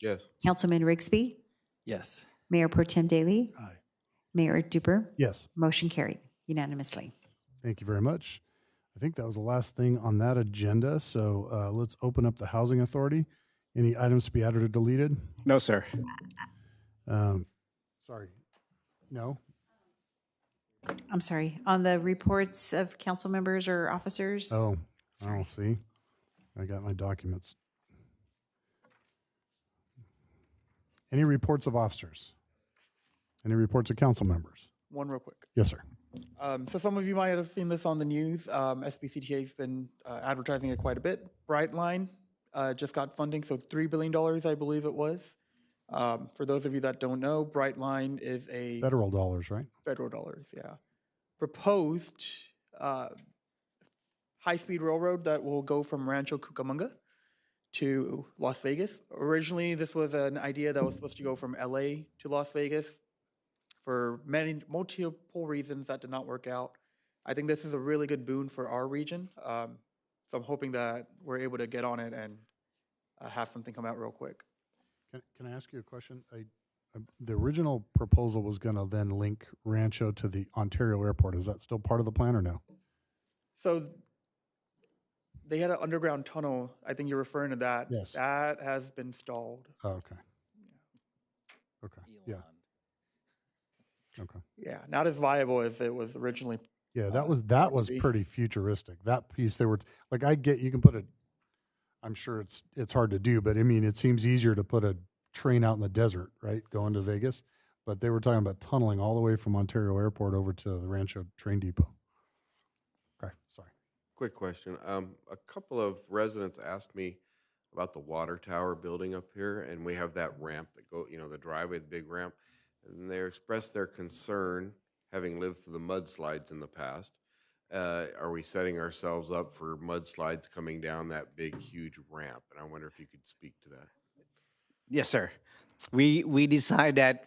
Yes. Councilman Rigsby, Yes. Mayor Pro Tem Daly, Aye. Mayor Duper, Yes. motion carried unanimously. Thank you very much. I think that was the last thing on that agenda. So uh, let's open up the Housing Authority. Any items to be added or deleted? No, sir. Um, Sorry. No? I'm sorry, on the reports of council members or officers? Oh, oh, Sorry. see? I got my documents. Any reports of officers? Any reports of council members? One real quick. Yes, sir. Um, so some of you might have seen this on the news. Um, SBCTA's been uh, advertising it quite a bit. Brightline uh, just got funding, so three billion dollars, I believe it was. Um, for those of you that don't know, Brightline is a Federal dollars, right? federal dollars, yeah. Proposed uh, high-speed railroad that will go from Rancho Cucamonga to Las Vegas. Originally, this was an idea that was supposed to go from LA to Las Vegas. For many multiple reasons, that did not work out. I think this is a really good boon for our region. Um, so I'm hoping that we're able to get on it and uh, have something come out real quick. Can, can I ask you a question? I, I, the original proposal was going to then link Rancho to the Ontario airport. Is that still part of the plan or no? So th- they had an underground tunnel. I think you're referring to that. Yes. That has been stalled. Oh, okay. Okay. Yeah. Okay. Yeah, not as viable as it was originally. Yeah. Uh, That was, that to was be. pretty futuristic. That piece they were, like, I get, you can put a, I'm sure it's, it's hard to do, but I mean, it seems easier to put a train out in the desert, right? Going to Vegas. But they were talking about tunneling all the way from Ontario airport over to the Rancho train depot. Okay. Sorry. Quick question. Um, a couple of residents asked me about the water tower building up here, and we have that ramp that go, you know, the driveway, the big ramp. And they expressed their concern, having lived through the mudslides in the past. Uh, are we setting ourselves up for mudslides coming down that big, huge ramp? And I wonder if you could speak to that. Yes, sir. We we decided that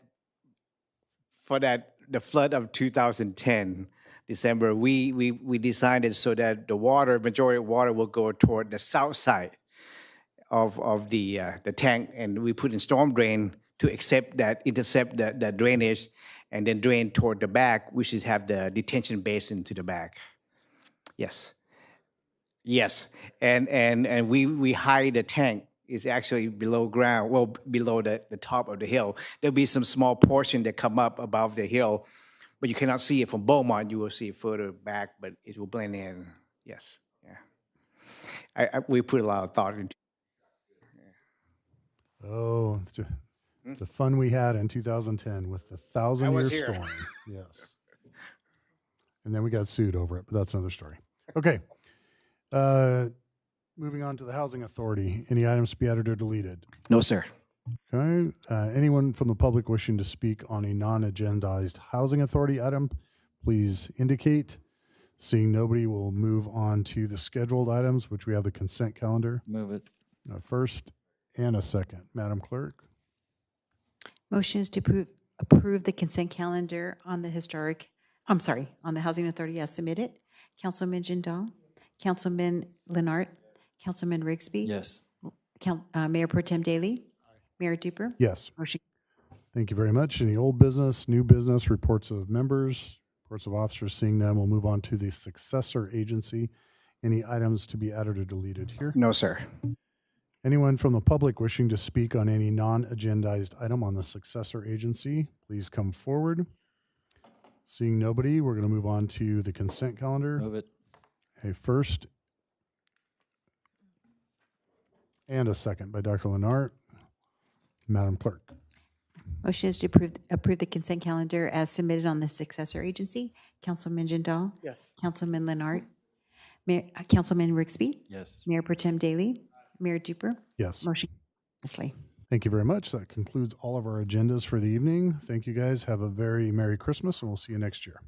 for that the flood of 2010 December, we we we designed it so that the water majority of water will go toward the south side of of the uh, the tank, and we put in storm drain to accept that intercept the, the drainage, and then drain toward the back, which is have the detention basin to the back. Yes. Yes, and and and we we hide the tank is actually below ground, well b- below the, the top of the hill. There'll be some small portion that come up above the hill, but you cannot see it from Beaumont. You will see it further back, but it will blend in. Yes, yeah. I, I, we put a lot of thought into. Oh, it's ju- the fun we had in 2010 with the thousand year Hmm? was here. storm. yes. And then we got sued over it, but that's another story. Okay. Uh, moving on to the Housing Authority. Any items to be added or deleted? No, sir. Okay. Uh, anyone from the public wishing to speak on a non agendized Housing Authority item, please indicate. Seeing nobody, we'll move on to the scheduled items, which we have the consent calendar. Move it. A first and a second. Madam Clerk. Motions to approve, approve the consent calendar on the historic, I'm sorry, on the Housing Authority as submitted. Councilman Jindal, Councilman Leonard, Councilman Rigsby. Yes. Coun- uh, Mayor Pro Tem Daly, Mayor Duper. Yes. Motion Thank you very much. Any old business, new business, reports of members, reports of officers, seeing none, we'll move on to the successor agency. Any items to be added or deleted here? No, sir. Anyone from the public wishing to speak on any non-agendized item on the successor agency, please come forward. Seeing nobody, we're going to move on to the consent calendar. Move it. A first and a second by Dr. Lenart. Madam Clerk. Motion is to approve, approve the consent calendar as submitted on the successor agency. Councilman Jindal, Yes. Councilman Leonard, Mayor, uh, Councilman Rigsby, Yes. Mayor Pro Tem Daly, Mayor Duper. Yes. Motion unanimously. Thank you very much. That concludes all of our agendas for the evening. Thank you guys. Have a very Merry Christmas, and we'll see you next year.